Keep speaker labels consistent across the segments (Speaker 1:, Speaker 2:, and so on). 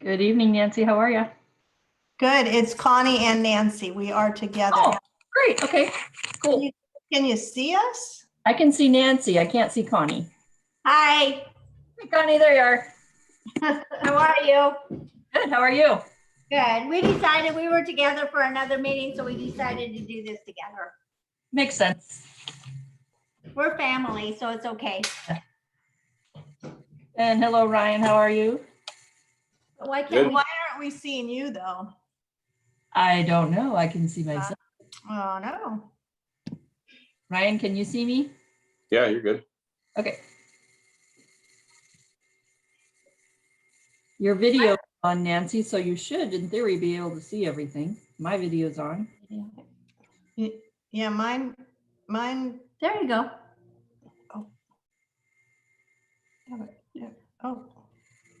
Speaker 1: Good evening, Nancy. How are you?
Speaker 2: Good. It's Connie and Nancy. We are
Speaker 1: Oh,
Speaker 2: together.
Speaker 1: great. Okay, cool.
Speaker 2: Can you see us?
Speaker 1: I can see Nancy. I can't see Connie.
Speaker 2: Hi,
Speaker 1: Hey, Connie, there you are.
Speaker 3: How are you?
Speaker 1: Good. How are you?
Speaker 3: Good. We decided we were together for another meeting, so we decided to do this together.
Speaker 1: Makes sense.
Speaker 3: We're family, so it's okay.
Speaker 1: And hello, Ryan. How are you?
Speaker 3: But Why can't
Speaker 4: Good.
Speaker 3: we?
Speaker 2: why aren't we seeing you though?
Speaker 1: I don't know. I can see myself.
Speaker 2: Oh, no.
Speaker 1: Ryan, can you see me?
Speaker 4: Yeah, you're good.
Speaker 1: Okay. Your video is on Nancy, so you should in theory be able to see everything. My video's on.
Speaker 2: Yeah, mine, mine,
Speaker 3: There you go.
Speaker 2: oh,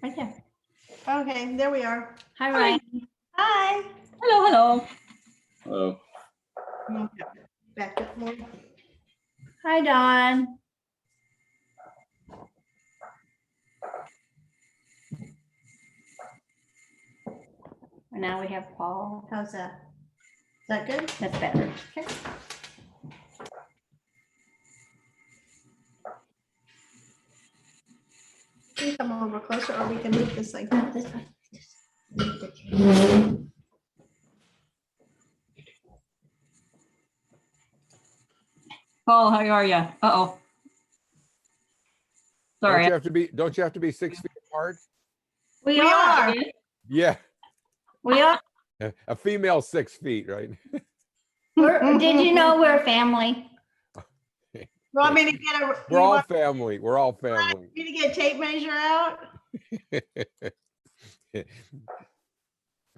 Speaker 3: Right there.
Speaker 2: okay, there we are.
Speaker 3: Hi, Ryan.
Speaker 2: Hi.
Speaker 1: Hello, hello.
Speaker 4: Uh,
Speaker 2: Okay, Back up more.
Speaker 3: Hi, Dawn. And now we have Paul. How's that? Is that good? That's better. Okay.
Speaker 2: Can you Come over closer or we can move this like that.
Speaker 3: This way.
Speaker 1: Paul, how are you? Uh-oh.
Speaker 5: Don't
Speaker 1: Sorry.
Speaker 5: you have to be, don't you have to be six feet apart?
Speaker 3: We are,
Speaker 5: Yeah,
Speaker 3: we are.
Speaker 5: a a female six feet, right?
Speaker 3: We're- Did you know we're family?
Speaker 2: Want me to get a, you
Speaker 5: We're all
Speaker 2: want
Speaker 5: family, we're all family.
Speaker 2: me to get a tape measure out?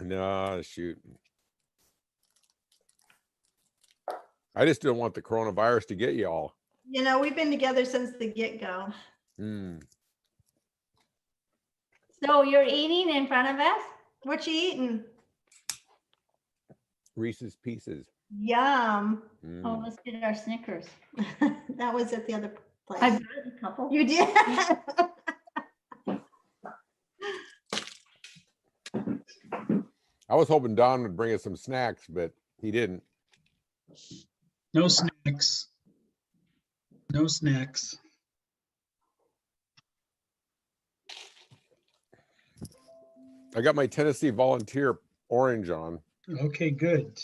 Speaker 5: No, shoot. I just didn't want the coronavirus to get y'all.
Speaker 2: You know, we've been together since the get-go.
Speaker 5: Hmm.
Speaker 3: So you're eating in front of us?
Speaker 2: What you eating?
Speaker 5: Reese's Pieces.
Speaker 2: Yum.
Speaker 5: Mm.
Speaker 3: Oh, let's get our Snickers.
Speaker 2: That was at the other
Speaker 3: I
Speaker 2: place.
Speaker 3: brought a couple.
Speaker 2: You did?
Speaker 5: I was hoping Don would bring us some snacks, but he didn't.
Speaker 6: No snacks. No snacks.
Speaker 5: I got my Tennessee Volunteer orange on.
Speaker 6: Okay, good.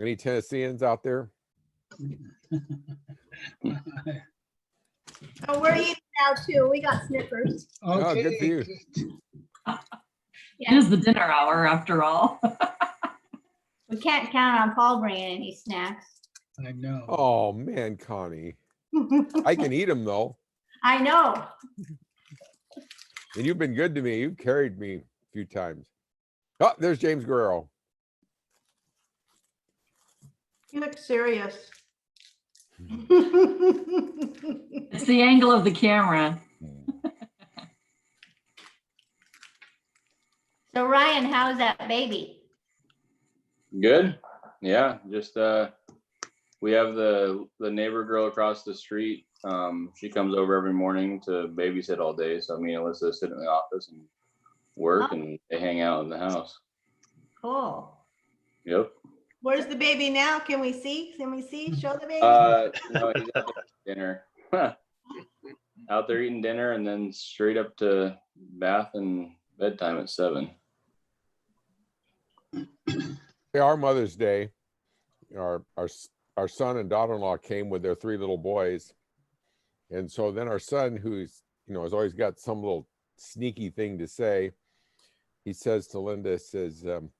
Speaker 5: Any Tennesseans out there?
Speaker 2: Oh, we're eating now too. We got Snickers.
Speaker 5: Oh, good for
Speaker 6: Okay,
Speaker 5: you.
Speaker 6: good.
Speaker 1: It is the dinner hour after all.
Speaker 3: We can't count on Paul bringing any snacks.
Speaker 6: I know.
Speaker 5: Oh, man, Connie. I can eat them though.
Speaker 3: I know.
Speaker 5: And you've been good to me. You've carried me a few times. Oh, there's James Guerrero.
Speaker 2: You look serious.
Speaker 1: It's the angle of the camera.
Speaker 3: So Ryan, how's that baby?
Speaker 4: good. Yeah, just uh, we have the the neighbor girl across the street. Um, she comes over every morning to babysit all day. So me and Alyssa sit in the office and work,
Speaker 3: Oh.
Speaker 4: and they hang out in the house.
Speaker 3: Cool.
Speaker 4: Yep.
Speaker 2: Where's the baby now? Can we see? Can we see? Show the baby?
Speaker 4: Uh, no, he's out there eating dinner. out there eating dinner, and then straight up to bath and bedtime at seven.
Speaker 5: Hey, Our Mother's Day, our, our, s- our son and daughter-in-law came with their three little boys. And so then our son, who's, you know, has always got some little sneaky thing to say, he says to Linda, says, um,